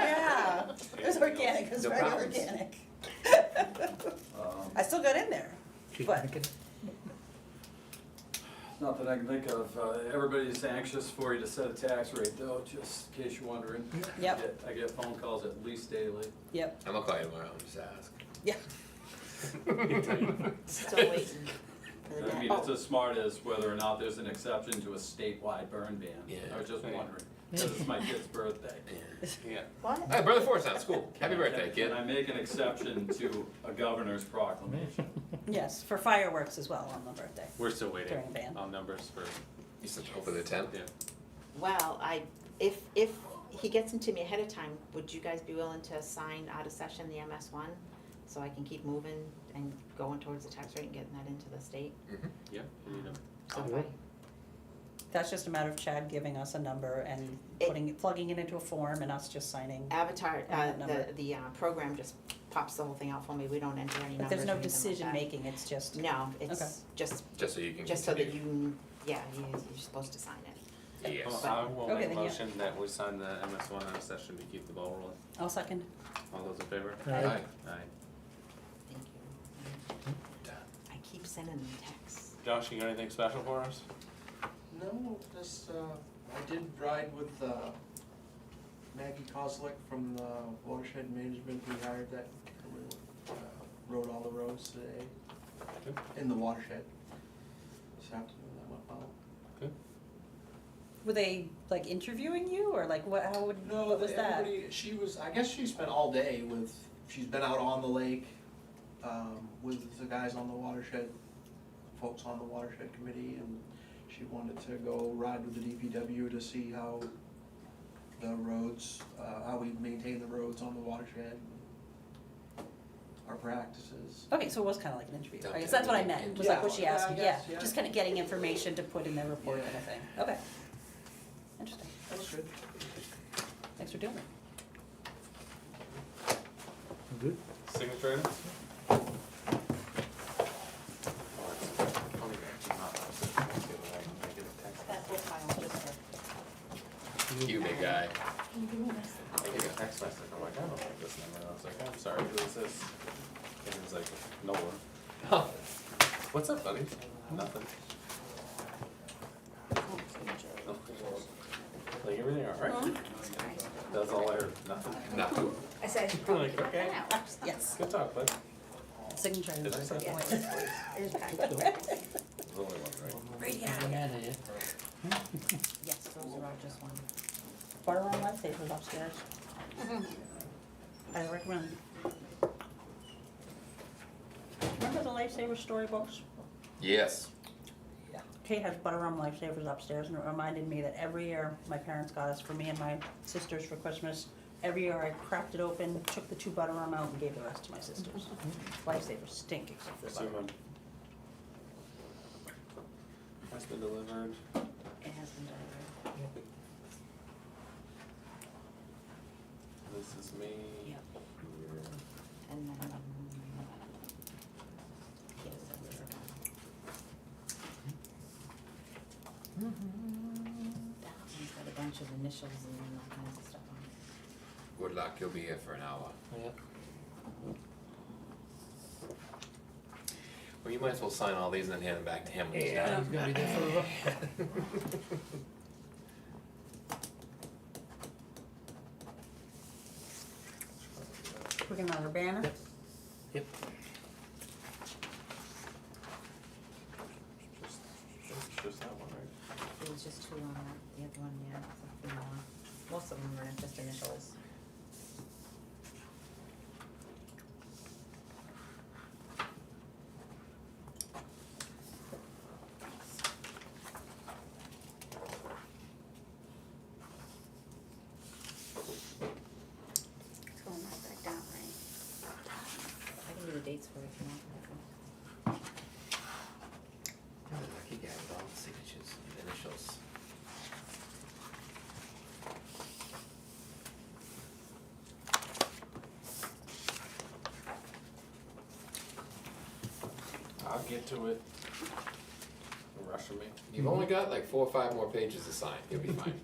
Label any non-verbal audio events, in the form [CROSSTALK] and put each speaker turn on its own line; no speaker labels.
Yeah.
Yeah, [LAUGHS] it was organic, it was
No
very
problems.
organic. [LAUGHS]
Um,
I still got in there, but
Not that I can think of. Uh, Everybody's anxious for you to set a tax rate though, just in case you're wondering. I
Yep.
get- I get phone calls at least daily.
yep,
I'm gonna call you tomorrow and just ask.
yeah.
Still waiting.
for the
I
dad.
mean, it's as smart as whether or not there's an exception to a statewide burn ban.
Yeah.
I was just
Right.
wondering, because it's my kid's birthday.
Oh.
Yeah.
What?
Hey, brother Forrest, that's cool. Happy
Can I-
birthday, kid.
Can I make an exception to a governor's proclamation?
Yes, for fireworks as well on the birthday.
We're still waiting
During ban.
on numbers for,
You said open the tent.
yeah.
Well, I, if, if he gets them to me ahead of time, would you guys be willing to sign out of session the MS one? So I can keep moving and going towards the tax rate and getting that into the state?
Yeah, we need 'em.
So if I-
That's just a matter of Chad giving us a number and putting, it- plugging it into a form and us just signing.
Avatar, uh,
That
the,
number.
the, uh, program just pops the whole thing out for me, we don't enter any
But
numbers
there's
or
no
anything like
decision
that.
making, it's just,
No,
Okay.
it's just,
Just so you can.
just so that
continue.
you, yeah, you- you're supposed to sign it.
Yes.
Well, I will
Okay,
make a
then, yeah.
motion that we sign the MS one out of session to keep the ball rolling.
I'll second.
All those in favor?
Hi.
Aye.
Thank you. I keep sending them texts.
[LAUGHS] Josh, you got anything special for us?
No, just, uh, I did ride with, uh, Maggie Koslick from the watershed management we hired that, uh, rode all the roads today
Good.
in the watershed. This afternoon, that went well.
Were they like interviewing you or like what, how would,
No,
what was that?
everybody, she was, I guess she spent all day with, she's been out on the lake, um, with the guys on the watershed, folks on the watershed committee, and she wanted to go ride with the DPW to see how the roads, uh, how we maintain the roads on the watershed, our practices.
Okay, so it was kinda like an interview, I
Okay.
guess that's what I meant, was like what she
Yeah,
asked,
I
you. yeah,
guess, yeah.
just kinda getting information to put in their report
Yeah.
kind of thing, okay. Interesting,
That was good.
thanks for doing it.
Signature? items?
That whole file just for
You big guy.
I get a text message, I'm like, I don't like this number, I was like, I'm sorry, who is this? And it was like, no one. What's up, buddy? Nothing. Like, everything alright? That's all I heard, nothing.
No. [LAUGHS]
I said,
I'm like, okay,
[LAUGHS]
Yes,
good talk, bud.
signature.
Did I send one? There's
[LAUGHS]
only one, right?
Right, yeah.
yes, those are all just one.
Borderline life savers
[LAUGHS]
upstairs. I recommend. Remember the lifesaver storybooks?
Yes.
Kate has butter rum lifesavers upstairs, and it reminded me that every year my parents got us for me and my sisters for Christmas. Every year I cracked it open, took the two butter rum out, and gave the rest to my sisters. Lifesavers stink except for the
See,
butter.
man. Has been delivered.
It has been delivered.
This is me.
Yep. And then. um, Yes, that's it. That one's got a bunch of initials and all kinds of stuff on it.
Good luck. You'll be here for an hour.
Yep.
Well, you might as well sign all these and then hand them back to him. when he's
Yeah,
done.
he's gonna be there for a
We're gonna have a banner?
Yep.
Just, [LAUGHS] just, just that one, right?
It was just two on that, the other one, yeah, it's a few more. Most of them were just initials.
It's going right back down, right?
I can do the dates for it if you want.
[LAUGHS] You're the lucky guy with all the signatures and initials.
I'll get to it. Rushing me.
You've only got like four or five more pages to sign. You'll be fine.